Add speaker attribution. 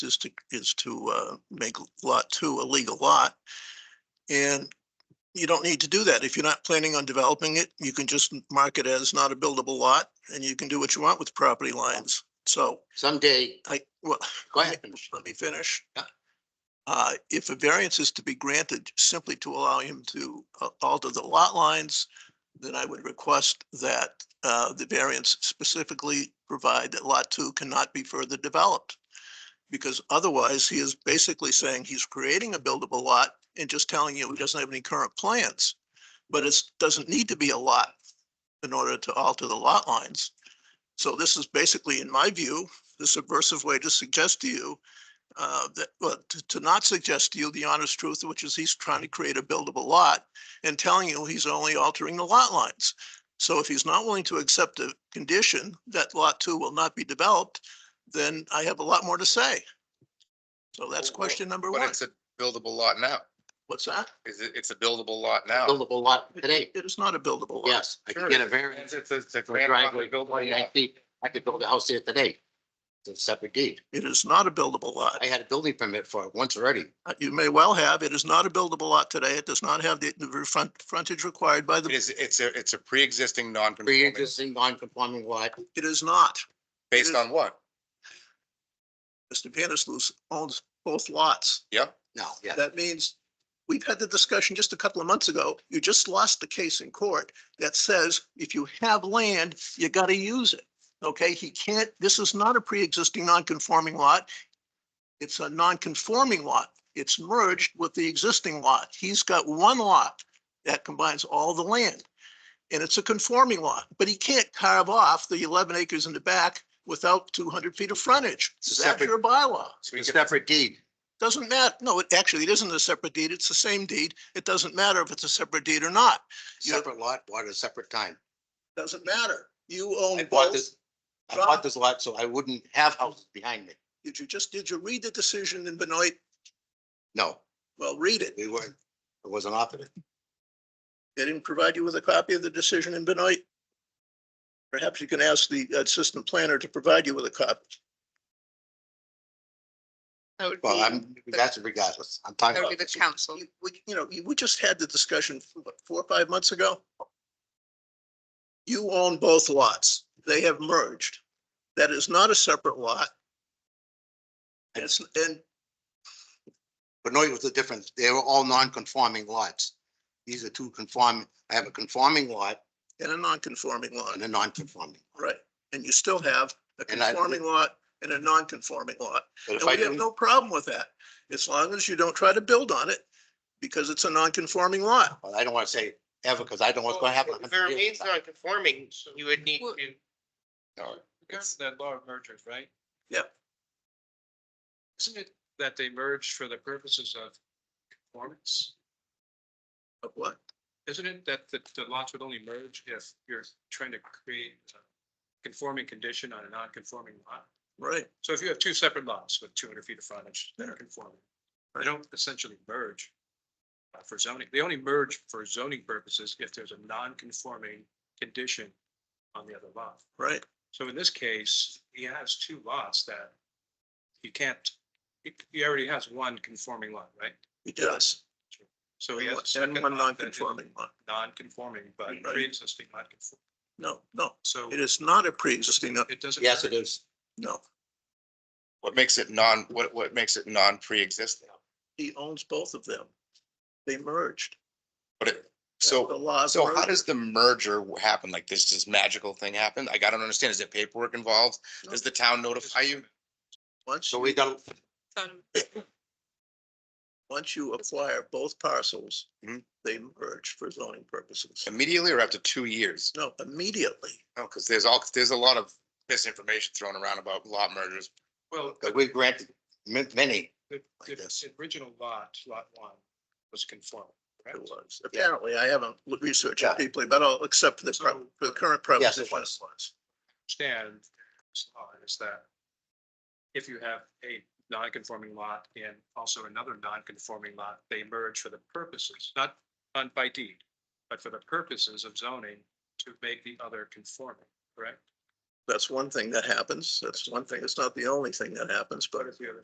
Speaker 1: is to, is to, uh, make lot two a legal lot. And you don't need to do that. If you're not planning on developing it, you can just mark it as not a buildable lot and you can do what you want with property lines. So
Speaker 2: Someday,
Speaker 1: I, well,
Speaker 2: go ahead.
Speaker 1: let me finish.
Speaker 2: Yeah.
Speaker 1: Uh, if a variance is to be granted simply to allow him to uh, alter the lot lines, then I would request that, uh, the variance specifically provide that lot two cannot be further developed. Because otherwise, he is basically saying he's creating a buildable lot and just telling you he doesn't have any current plans. But it doesn't need to be a lot in order to alter the lot lines. So this is basically, in my view, the subversive way to suggest to you uh, that, well, to, to not suggest to you the honest truth, which is he's trying to create a buildable lot and telling you he's only altering the lot lines. So if he's not willing to accept a condition that lot two will not be developed, then I have a lot more to say. So that's
Speaker 3: Well,
Speaker 1: question number
Speaker 3: But
Speaker 1: one.
Speaker 3: it's a buildable lot now.
Speaker 1: What's that?
Speaker 3: Is it, it's a buildable lot now.
Speaker 2: buildable lot
Speaker 1: It-
Speaker 2: today,
Speaker 1: It is not a buildable lot.
Speaker 2: yes, I
Speaker 3: Sure.
Speaker 2: could get a variance
Speaker 3: It's, it's, it's a
Speaker 2: for a
Speaker 3: grandfather
Speaker 2: driveway,
Speaker 3: buildable
Speaker 2: twenty-nine
Speaker 3: lot.
Speaker 2: feet, I could build a house there today. It's a separate deed,
Speaker 1: It is not a buildable lot.
Speaker 2: I had a building permit for it once already,
Speaker 1: Uh, You may well have. It is not a buildable lot today. It does not have the, the front, frontage required by
Speaker 3: It
Speaker 1: the,
Speaker 3: is, it's a, it's a pre-existing non-conforming,
Speaker 2: pre-existing non-conforming lot,
Speaker 1: it is not.
Speaker 3: based on what?
Speaker 1: Mr. Vandersloot owns both lots.
Speaker 3: Yep.
Speaker 2: no, yeah.
Speaker 1: That means, we've had the discussion just a couple of months ago. You just lost the case in court that says if you have land, you gotta use it. Okay, he can't, this is not a pre-existing non-conforming lot. It's a non-conforming lot. It's merged with the existing lot. He's got one lot that combines all the land. And it's a conforming lot, but he can't carve off the eleven acres in the back without two hundred feet of frontage.
Speaker 3: It's a
Speaker 1: That's
Speaker 3: separate-
Speaker 1: your bylaw.
Speaker 3: So we
Speaker 2: It's a
Speaker 3: can-
Speaker 2: separate deed,
Speaker 1: Doesn't matter. No, it actually, it isn't a separate deed. It's the same deed. It doesn't matter if it's a separate deed or not. You-
Speaker 2: separate lot, bought at a separate time.
Speaker 1: Doesn't matter. You own
Speaker 2: I bought
Speaker 1: both.
Speaker 2: this, I bought this lot so I wouldn't have houses behind me,
Speaker 1: Did you just, did you read the decision in Benoit?
Speaker 2: no,
Speaker 1: Well, read it.
Speaker 2: we weren't, it wasn't offered.
Speaker 1: They didn't provide you with a copy of the decision in Benoit. Perhaps you can ask the assistant planner to provide you with a copy.
Speaker 4: That would
Speaker 2: Well,
Speaker 4: be,
Speaker 2: I'm, that's regardless, I'm talking
Speaker 4: that would
Speaker 2: about.
Speaker 4: be the
Speaker 2: this.
Speaker 4: council.
Speaker 1: You- We, you know, you- we just had the discussion what, four or five months ago. You own both lots. They have merged. That is not a separate lot. It's, and
Speaker 2: But no, it was the difference. They were all non-conforming lots. These are two conforming, I have a conforming lot
Speaker 1: and a non-conforming lot,
Speaker 2: and a non-conforming.
Speaker 1: right? And you still have a
Speaker 2: And I-
Speaker 1: conforming lot and a non-conforming lot.
Speaker 2: But if
Speaker 1: And
Speaker 2: I
Speaker 1: we have
Speaker 2: didn't,
Speaker 1: no problem with that, as long as you don't try to build on it, because it's a non-conforming lot.
Speaker 2: well, I don't want to say ever, because I don't know what's going to happen.
Speaker 5: If it remains
Speaker 1: uh,
Speaker 5: non-conforming, you would need
Speaker 4: Well-
Speaker 5: to.
Speaker 3: No,
Speaker 6: Regarding the law of mergers, right?
Speaker 1: Yep.
Speaker 6: Isn't it that they merged for the purposes of conformance?
Speaker 1: Of what?
Speaker 6: Isn't it that the, the lots would only merge if you're trying to create a conforming condition on a non-conforming lot?
Speaker 1: Right.
Speaker 6: So if you have two separate lots with two hundred feet of frontage that are conforming, they don't essentially merge uh, for zoning. They only merge for zoning purposes if there's a non-conforming condition on the other lot.
Speaker 1: Right.
Speaker 6: So in this case, he has two lots that you can't, he- he already has one conforming lot, right?
Speaker 1: He does.
Speaker 6: So he has. a
Speaker 1: And
Speaker 6: second
Speaker 1: one
Speaker 6: lot that is
Speaker 1: non-conforming lot.
Speaker 6: Non-conforming, but
Speaker 1: Right.
Speaker 6: pre-existing not conforming.
Speaker 1: No, no,
Speaker 6: So
Speaker 1: it is not a pre-existing, no,
Speaker 6: it doesn't.
Speaker 2: Yes, it is.
Speaker 1: no.
Speaker 3: What makes it non, what, what makes it non-pre-existing?
Speaker 1: He owns both of them. They merged.
Speaker 3: But it,
Speaker 1: That's The
Speaker 3: so,
Speaker 1: laws.
Speaker 3: so how does the merger happen? Like this, this magical thing happen? Like, I don't understand. Is there paperwork involved? Does the town notify you?
Speaker 1: Once,
Speaker 2: So we don't,
Speaker 4: Um,
Speaker 1: once you acquire both parcels,
Speaker 3: Mhm.
Speaker 1: they merge for zoning purposes.
Speaker 3: Immediately or after two years?
Speaker 1: No, immediately.
Speaker 3: No, because there's all, there's a lot of misinformation thrown around about lot mergers.
Speaker 6: Well,
Speaker 2: but we granted ma- many.
Speaker 6: the, the
Speaker 2: guess.
Speaker 6: the original lot, lot one, was conforming,
Speaker 1: It
Speaker 6: correct?
Speaker 1: was. Apparently, I haven't l- researched
Speaker 2: Yeah.
Speaker 1: it deeply, but I'll accept the, pro- the current premise
Speaker 2: Yes,
Speaker 1: is
Speaker 2: it
Speaker 1: what it
Speaker 2: was.
Speaker 1: was.
Speaker 6: Stand uh, is that if you have a non-conforming lot and also another non-conforming lot, they merge for the purposes, not on by deed, but for the purposes of zoning to make the other conforming, correct?
Speaker 1: That's one thing that happens. That's one thing. It's not the only thing that happens, but
Speaker 6: What is the other